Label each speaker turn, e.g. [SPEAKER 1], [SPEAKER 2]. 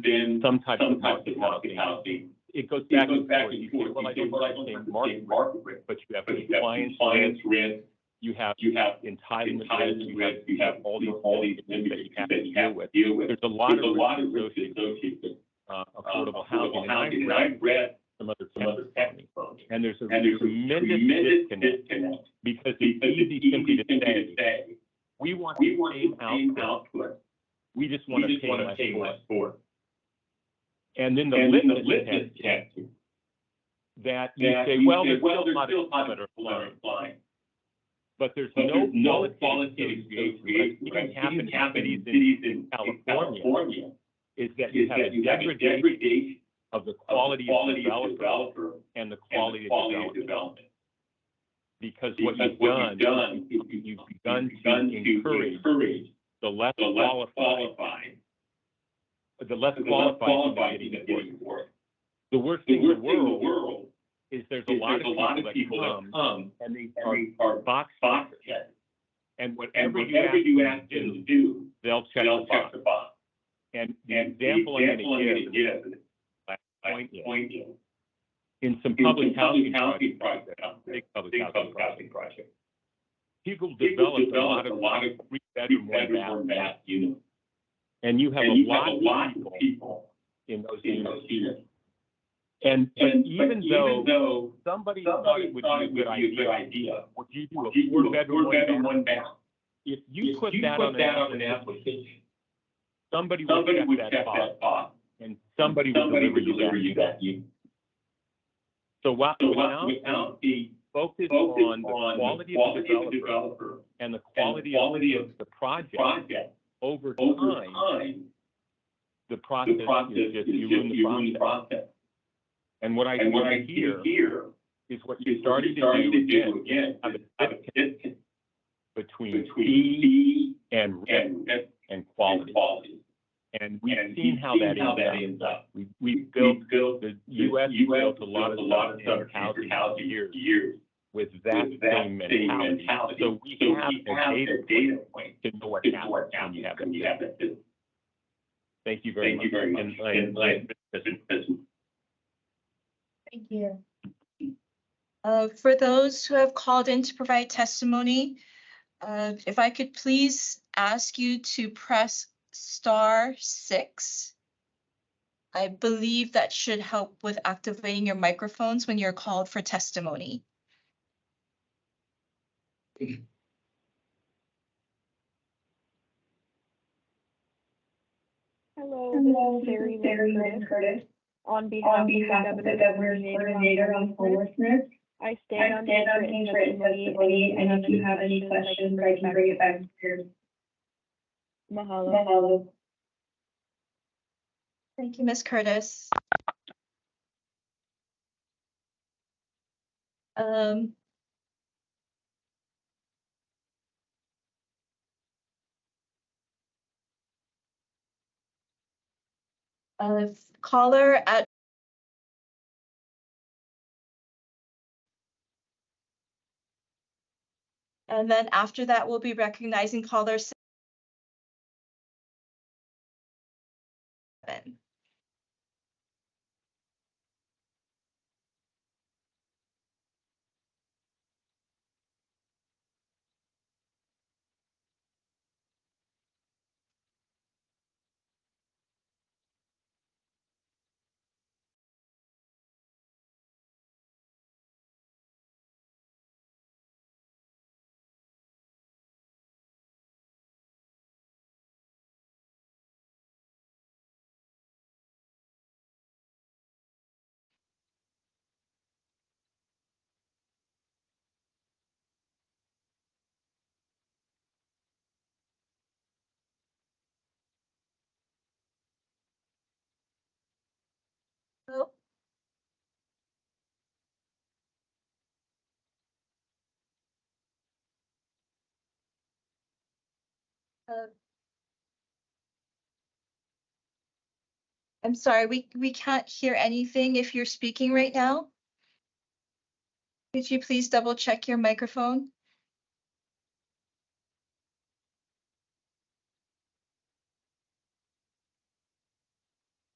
[SPEAKER 1] been
[SPEAKER 2] some type
[SPEAKER 1] some
[SPEAKER 2] of
[SPEAKER 1] type of
[SPEAKER 2] hospitality.
[SPEAKER 1] hospitality.
[SPEAKER 2] It goes
[SPEAKER 1] It
[SPEAKER 2] back
[SPEAKER 1] goes
[SPEAKER 2] and
[SPEAKER 1] back
[SPEAKER 2] forth.
[SPEAKER 1] and
[SPEAKER 2] You say,
[SPEAKER 1] forth.
[SPEAKER 2] well, I
[SPEAKER 1] You say,
[SPEAKER 2] don't
[SPEAKER 1] well, I don't
[SPEAKER 2] understand market,
[SPEAKER 1] understand market risk.
[SPEAKER 2] but you have
[SPEAKER 1] But you have
[SPEAKER 2] compliance,
[SPEAKER 1] compliance risk,
[SPEAKER 2] you have
[SPEAKER 1] you have
[SPEAKER 2] entitlement risk,
[SPEAKER 1] entitlement risk, you have all these, all these
[SPEAKER 2] that
[SPEAKER 1] limitations
[SPEAKER 2] you have
[SPEAKER 1] that
[SPEAKER 2] to
[SPEAKER 1] you
[SPEAKER 2] deal
[SPEAKER 1] have to
[SPEAKER 2] with.
[SPEAKER 1] deal with.
[SPEAKER 2] There's a lot
[SPEAKER 1] There's
[SPEAKER 2] of
[SPEAKER 1] a lot of
[SPEAKER 2] risks associated
[SPEAKER 1] risk
[SPEAKER 2] with
[SPEAKER 1] associated
[SPEAKER 2] uh,
[SPEAKER 1] with uh,
[SPEAKER 2] affordable housing. And I've
[SPEAKER 1] And
[SPEAKER 2] read
[SPEAKER 1] I've read
[SPEAKER 2] some other
[SPEAKER 1] some other
[SPEAKER 2] testimony.
[SPEAKER 1] tech firms.
[SPEAKER 2] And there's a
[SPEAKER 1] And there's a
[SPEAKER 2] tremendous
[SPEAKER 1] tremendous
[SPEAKER 2] disconnect
[SPEAKER 1] disconnect
[SPEAKER 2] because
[SPEAKER 1] because
[SPEAKER 2] it's
[SPEAKER 1] it's
[SPEAKER 2] easy simply to
[SPEAKER 1] to
[SPEAKER 2] say,
[SPEAKER 1] say,
[SPEAKER 2] we want
[SPEAKER 1] we
[SPEAKER 2] the
[SPEAKER 1] want
[SPEAKER 2] same
[SPEAKER 1] the same
[SPEAKER 2] outcome.
[SPEAKER 1] output.
[SPEAKER 2] We just
[SPEAKER 1] We
[SPEAKER 2] want to
[SPEAKER 1] just
[SPEAKER 2] pay
[SPEAKER 1] want to
[SPEAKER 2] less
[SPEAKER 1] pay
[SPEAKER 2] for
[SPEAKER 1] less
[SPEAKER 2] it.
[SPEAKER 1] for it.
[SPEAKER 2] And then the
[SPEAKER 1] And then the
[SPEAKER 2] litmus
[SPEAKER 1] litmus
[SPEAKER 2] test
[SPEAKER 1] test is
[SPEAKER 2] that you
[SPEAKER 1] that
[SPEAKER 2] say,
[SPEAKER 1] you
[SPEAKER 2] well,
[SPEAKER 1] say,
[SPEAKER 2] there's
[SPEAKER 1] well,
[SPEAKER 2] still not a
[SPEAKER 1] not
[SPEAKER 2] climate
[SPEAKER 1] a
[SPEAKER 2] or
[SPEAKER 1] flood or flooding.
[SPEAKER 2] But there's
[SPEAKER 1] But
[SPEAKER 2] no
[SPEAKER 1] there's no
[SPEAKER 2] qualitative
[SPEAKER 1] qualitative
[SPEAKER 2] association.
[SPEAKER 1] association,
[SPEAKER 2] What
[SPEAKER 1] right?
[SPEAKER 2] can happen
[SPEAKER 1] It happened
[SPEAKER 2] in
[SPEAKER 1] in
[SPEAKER 2] cities
[SPEAKER 1] cities in
[SPEAKER 2] California
[SPEAKER 1] California.
[SPEAKER 2] is that you
[SPEAKER 1] Is
[SPEAKER 2] have
[SPEAKER 1] that
[SPEAKER 2] a
[SPEAKER 1] you have a
[SPEAKER 2] degradation
[SPEAKER 1] degradation
[SPEAKER 2] of the
[SPEAKER 1] of the
[SPEAKER 2] quality of
[SPEAKER 1] quality of
[SPEAKER 2] development
[SPEAKER 1] developer
[SPEAKER 2] and the
[SPEAKER 1] and
[SPEAKER 2] quality
[SPEAKER 1] the
[SPEAKER 2] of
[SPEAKER 1] quality of
[SPEAKER 2] development.
[SPEAKER 1] development.
[SPEAKER 2] Because what
[SPEAKER 1] Because
[SPEAKER 2] you've
[SPEAKER 1] what you've
[SPEAKER 2] done,
[SPEAKER 1] done, is
[SPEAKER 2] you've begun to encourage
[SPEAKER 1] to encourage
[SPEAKER 2] the less
[SPEAKER 1] the less
[SPEAKER 2] qualified,
[SPEAKER 1] qualified,
[SPEAKER 2] the less
[SPEAKER 1] the less
[SPEAKER 2] qualified
[SPEAKER 1] qualified
[SPEAKER 2] you're getting
[SPEAKER 1] to get
[SPEAKER 2] for it.
[SPEAKER 1] getting work.
[SPEAKER 2] The worst
[SPEAKER 1] The
[SPEAKER 2] thing in the
[SPEAKER 1] worst thing in
[SPEAKER 2] world
[SPEAKER 1] the world
[SPEAKER 2] is there's
[SPEAKER 1] is
[SPEAKER 2] a lot
[SPEAKER 1] there's
[SPEAKER 2] of
[SPEAKER 1] a lot of
[SPEAKER 2] people
[SPEAKER 1] people
[SPEAKER 2] that come
[SPEAKER 1] that come
[SPEAKER 2] and they are
[SPEAKER 1] and they are
[SPEAKER 2] box
[SPEAKER 1] box
[SPEAKER 2] checkers.
[SPEAKER 1] checked.
[SPEAKER 2] And
[SPEAKER 1] And
[SPEAKER 2] whatever
[SPEAKER 1] whatever you
[SPEAKER 2] them
[SPEAKER 1] ask
[SPEAKER 2] to
[SPEAKER 1] them
[SPEAKER 2] do,
[SPEAKER 1] to do,
[SPEAKER 2] they'll check the
[SPEAKER 1] they'll check
[SPEAKER 2] box.
[SPEAKER 1] the box.
[SPEAKER 2] And the
[SPEAKER 1] And the
[SPEAKER 2] example I'm
[SPEAKER 1] example I'm
[SPEAKER 2] going to
[SPEAKER 1] gonna
[SPEAKER 2] give,
[SPEAKER 1] give, I
[SPEAKER 2] point is,
[SPEAKER 1] point you,
[SPEAKER 2] in some
[SPEAKER 1] in
[SPEAKER 2] public
[SPEAKER 1] some
[SPEAKER 2] housing
[SPEAKER 1] public
[SPEAKER 2] projects,
[SPEAKER 1] housing projects,
[SPEAKER 2] big public
[SPEAKER 1] big
[SPEAKER 2] housing
[SPEAKER 1] public
[SPEAKER 2] projects,
[SPEAKER 1] housing projects.
[SPEAKER 2] people
[SPEAKER 1] People
[SPEAKER 2] develop a lot
[SPEAKER 1] develop a
[SPEAKER 2] of
[SPEAKER 1] lot of
[SPEAKER 2] three bedroom, one
[SPEAKER 1] bedroom or
[SPEAKER 2] bath,
[SPEAKER 1] bath units.
[SPEAKER 2] and you have
[SPEAKER 1] And
[SPEAKER 2] a
[SPEAKER 1] you have
[SPEAKER 2] lot
[SPEAKER 1] a
[SPEAKER 2] of
[SPEAKER 1] lot
[SPEAKER 2] people
[SPEAKER 1] of people
[SPEAKER 2] in those
[SPEAKER 1] in
[SPEAKER 2] units.
[SPEAKER 1] those units.
[SPEAKER 2] And,
[SPEAKER 1] And
[SPEAKER 2] and
[SPEAKER 1] but
[SPEAKER 2] even though
[SPEAKER 1] though
[SPEAKER 2] somebody thought
[SPEAKER 1] somebody
[SPEAKER 2] it would
[SPEAKER 1] thought
[SPEAKER 2] be
[SPEAKER 1] it
[SPEAKER 2] a good idea,
[SPEAKER 1] idea,
[SPEAKER 2] would you do
[SPEAKER 1] you
[SPEAKER 2] a
[SPEAKER 1] do
[SPEAKER 2] four
[SPEAKER 1] a
[SPEAKER 2] bedroom, one
[SPEAKER 1] four-bedroom,
[SPEAKER 2] bath?
[SPEAKER 1] one bath.
[SPEAKER 2] If you
[SPEAKER 1] If
[SPEAKER 2] put that on an application,
[SPEAKER 1] application,
[SPEAKER 2] somebody would
[SPEAKER 1] somebody would
[SPEAKER 2] check
[SPEAKER 1] check
[SPEAKER 2] that box
[SPEAKER 1] that box.
[SPEAKER 2] and somebody would
[SPEAKER 1] Somebody
[SPEAKER 2] deliver
[SPEAKER 1] would
[SPEAKER 2] you
[SPEAKER 1] deliver you
[SPEAKER 2] that.
[SPEAKER 1] that unit.
[SPEAKER 2] So why,
[SPEAKER 1] So what-
[SPEAKER 2] without
[SPEAKER 1] without the
[SPEAKER 2] focus
[SPEAKER 1] focus
[SPEAKER 2] on
[SPEAKER 1] on
[SPEAKER 2] the quality of the
[SPEAKER 1] the quality of the
[SPEAKER 2] developer
[SPEAKER 1] developer,
[SPEAKER 2] and the
[SPEAKER 1] and the
[SPEAKER 2] quality of
[SPEAKER 1] quality of
[SPEAKER 2] the project
[SPEAKER 1] project,
[SPEAKER 2] over
[SPEAKER 1] over
[SPEAKER 2] time,
[SPEAKER 1] time,
[SPEAKER 2] the process
[SPEAKER 1] the process
[SPEAKER 2] is
[SPEAKER 1] is
[SPEAKER 2] just,
[SPEAKER 1] just
[SPEAKER 2] you ruin the
[SPEAKER 1] you ruin the
[SPEAKER 2] process.
[SPEAKER 1] process.
[SPEAKER 2] And what I
[SPEAKER 1] And what I
[SPEAKER 2] see
[SPEAKER 1] see
[SPEAKER 2] here
[SPEAKER 1] here
[SPEAKER 2] is what
[SPEAKER 1] is
[SPEAKER 2] you're
[SPEAKER 1] what
[SPEAKER 2] starting
[SPEAKER 1] you're
[SPEAKER 2] to
[SPEAKER 1] starting
[SPEAKER 2] do
[SPEAKER 1] to
[SPEAKER 2] again
[SPEAKER 1] do again,
[SPEAKER 2] have a
[SPEAKER 1] is have a disconnect
[SPEAKER 2] between
[SPEAKER 1] between
[SPEAKER 2] fee
[SPEAKER 1] fee
[SPEAKER 2] and risk
[SPEAKER 1] and risk
[SPEAKER 2] and
[SPEAKER 1] and
[SPEAKER 2] quality.
[SPEAKER 1] quality.
[SPEAKER 2] And we've
[SPEAKER 1] And
[SPEAKER 2] seen
[SPEAKER 1] we've
[SPEAKER 2] how that
[SPEAKER 1] seen how that
[SPEAKER 2] ends
[SPEAKER 1] ends
[SPEAKER 2] up.
[SPEAKER 1] up.
[SPEAKER 2] We, we built,
[SPEAKER 1] built
[SPEAKER 2] the US built a lot of stuff in housing for years
[SPEAKER 1] years
[SPEAKER 2] with that
[SPEAKER 1] with
[SPEAKER 2] same mentality. So we have the data
[SPEAKER 1] the data point
[SPEAKER 2] to know what
[SPEAKER 1] to know
[SPEAKER 2] happens
[SPEAKER 1] what
[SPEAKER 2] when you
[SPEAKER 1] happens
[SPEAKER 2] have that.
[SPEAKER 1] when you
[SPEAKER 2] data.
[SPEAKER 1] have that disconnect.
[SPEAKER 2] Thank you very
[SPEAKER 1] Thank
[SPEAKER 2] much.
[SPEAKER 1] you very much.
[SPEAKER 2] And
[SPEAKER 1] And
[SPEAKER 2] I-
[SPEAKER 1] I-
[SPEAKER 2] listen,
[SPEAKER 3] Thank you. Uh, For those who have called in to provide testimony, uh, if I could please ask you to press star six. I believe that should help with activating your microphones when you're called for testimony.
[SPEAKER 4] Hello, this is Sherry Curtis. On
[SPEAKER 5] On
[SPEAKER 4] behalf
[SPEAKER 5] behalf
[SPEAKER 4] of
[SPEAKER 5] of
[SPEAKER 4] the
[SPEAKER 5] the
[SPEAKER 4] Governors
[SPEAKER 5] governor's coordinator on homelessness,
[SPEAKER 4] I stand
[SPEAKER 5] I
[SPEAKER 4] on
[SPEAKER 5] stand on
[SPEAKER 4] being
[SPEAKER 5] his
[SPEAKER 4] written
[SPEAKER 5] written testimony, and if you have any questions, I can bring it back to your
[SPEAKER 4] Mahalo.
[SPEAKER 5] Mahalo.
[SPEAKER 3] Thank you, Ms. Curtis. Um, uh, caller at And then after that, we'll be recognizing caller seven. Oh. Uh, I'm sorry, we, we can't hear anything if you're speaking right now. Could you please double check your microphone?